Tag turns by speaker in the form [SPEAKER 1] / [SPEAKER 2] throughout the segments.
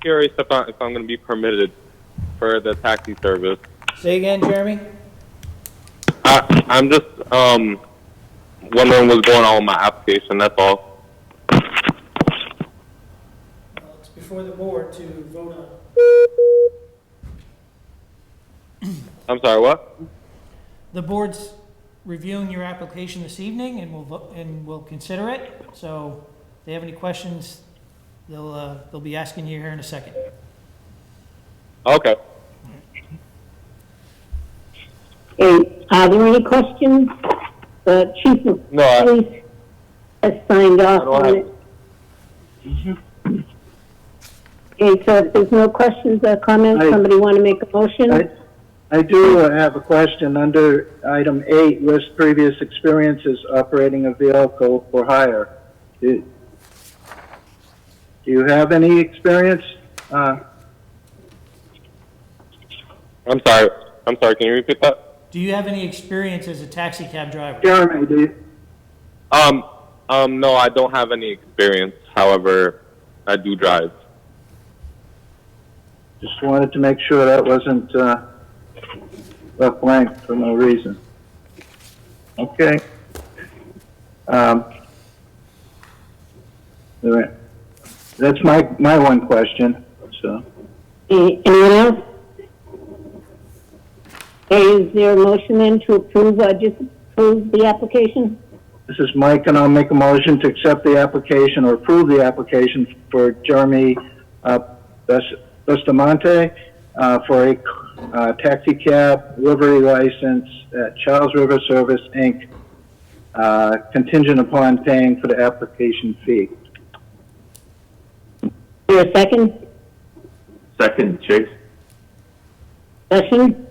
[SPEAKER 1] curious if, I, if I'm going to be permitted for the taxi service.
[SPEAKER 2] Say again, Jeremy?
[SPEAKER 1] I, I'm just um, wondering what's going on with my application. That's all.
[SPEAKER 3] Well, It's before the board to vote on.
[SPEAKER 1] I'm sorry. What?
[SPEAKER 3] The board's reviewing your application this evening and will, vo- and will consider it. So if they have any questions, they'll, uh, they'll be asking you here in a second.
[SPEAKER 1] Okay.
[SPEAKER 4] Okay, are there any questions? The chief of
[SPEAKER 1] No, I-
[SPEAKER 4] police has signed off
[SPEAKER 1] don't
[SPEAKER 4] on
[SPEAKER 1] have-
[SPEAKER 4] it. Okay, so if there's no questions or comments,
[SPEAKER 5] I-
[SPEAKER 4] somebody want to make a
[SPEAKER 5] I,
[SPEAKER 4] motion?
[SPEAKER 5] I do uh, have a question under item eight, list previous experiences operating a vehicle for hire. Do do you have any experience? Uh,
[SPEAKER 1] I'm sorry. I'm sorry. Can you repeat that?
[SPEAKER 3] Do you have any experience as a taxi cab driver?
[SPEAKER 5] Jeremy, do you,
[SPEAKER 1] Um. Um. No, I don't have any experience. However, I do drive.
[SPEAKER 5] just wanted to make sure that wasn't, uh, left blank for no reason. Okay. Um, all right. That's my, my one question, so.
[SPEAKER 4] Okay, Anyone else? Okay, is there a motion then to approve or disapprove the application?
[SPEAKER 5] This is Mike, and I'll make a motion to accept the application or approve the application for Jeremy uh, Bes- Bustamante uh, for a uh, taxi cab livery license at Charles River Service, Inc., uh, contingent upon paying for the application fee.
[SPEAKER 4] Is there a second?
[SPEAKER 6] Second, Chase.
[SPEAKER 4] Discussion?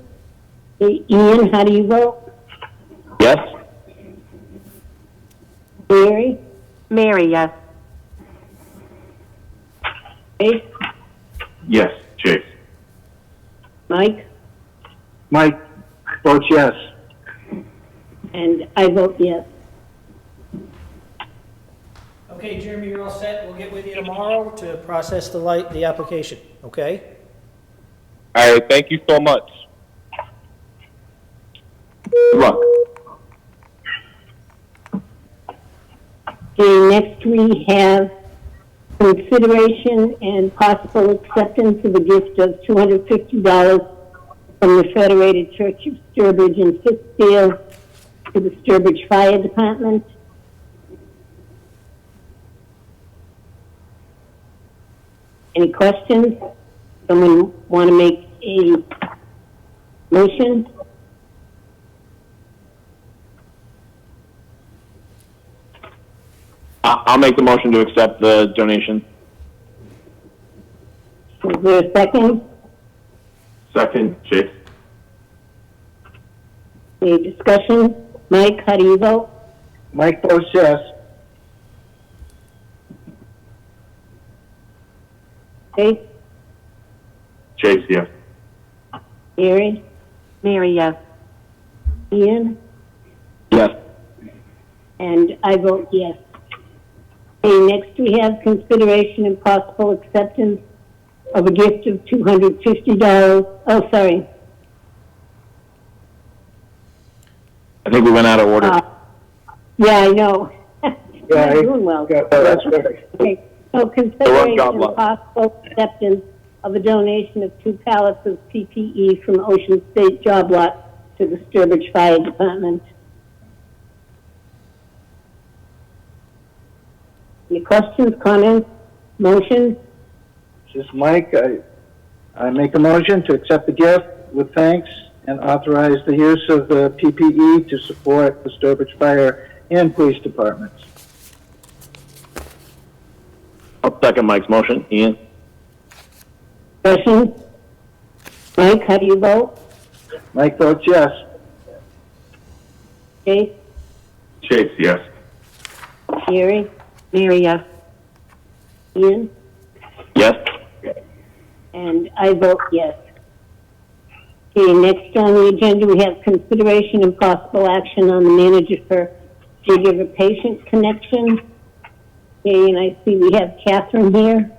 [SPEAKER 4] Okay, Ian, how do you vote?
[SPEAKER 6] Yes.
[SPEAKER 4] Mary?
[SPEAKER 7] Mary, yes.
[SPEAKER 4] Okay,
[SPEAKER 6] Yes, Chase.
[SPEAKER 4] Mike?
[SPEAKER 5] Mike votes yes.
[SPEAKER 4] And I vote yes.
[SPEAKER 3] Okay, Jeremy, you're all set. We'll get with you tomorrow to process the light, the application, okay?
[SPEAKER 1] All right. Thank you so much.
[SPEAKER 6] Good luck.
[SPEAKER 4] Okay, next we have consideration and possible acceptance of a gift of $250 from the Federated Church of Sturbridge in Pittsfield to the Sturbridge Fire Department. Any questions? Someone want to make a motion?
[SPEAKER 6] I- I'll make the motion to accept the donation.
[SPEAKER 4] Is there a second?
[SPEAKER 6] Second, Chase.
[SPEAKER 4] Any discussion? Mike, how do you vote?
[SPEAKER 5] Mike votes yes.
[SPEAKER 4] Okay,
[SPEAKER 6] Chase, yes.
[SPEAKER 4] Mary?
[SPEAKER 7] Mary, yes.
[SPEAKER 4] Ian,
[SPEAKER 6] Yes.
[SPEAKER 4] and I vote yes. Okay, next we have consideration and possible acceptance of a gift of two hundred fifty dollars, oh, sorry,
[SPEAKER 6] I think we went out of order.
[SPEAKER 4] uh, yeah, I know.
[SPEAKER 5] Yeah, I-
[SPEAKER 4] Not doing well.
[SPEAKER 5] Yeah, That's right.
[SPEAKER 4] Okay, so consideration
[SPEAKER 6] job,
[SPEAKER 4] and
[SPEAKER 6] love.
[SPEAKER 4] possible acceptance of a donation of two pallets of PPE E from Ocean State Job Lot to the Sturbridge Fire Department. Any questions, comments, motion?
[SPEAKER 5] This is Mike. I, I make a motion to accept the gift with thanks and authorize the use of the PPE to support the Sturbridge Fire and Police Departments.
[SPEAKER 6] I'll second Mike's motion. Ian?
[SPEAKER 4] Discussion? Mike, how do you vote?
[SPEAKER 5] Mike votes yes.
[SPEAKER 4] Okay,
[SPEAKER 6] Chase, yes.
[SPEAKER 4] Jerry,
[SPEAKER 7] Mary, yes.
[SPEAKER 4] Ian,
[SPEAKER 6] Yes.
[SPEAKER 4] and I vote yes. Okay, next on the agenda, we have consideration and possible action on the manager for caregiver patient connection. Okay, and I see we have Catherine here.